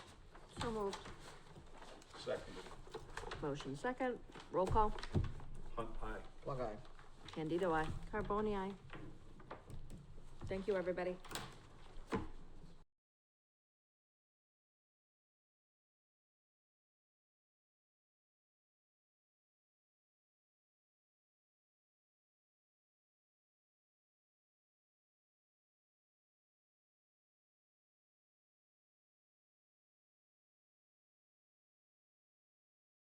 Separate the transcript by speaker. Speaker 1: So moved.
Speaker 2: Seconded.
Speaker 1: Motion second, roll call.
Speaker 2: Hunt aye.
Speaker 3: Plug eye.
Speaker 1: Candido, I. Carboni, I. Thank you, everybody.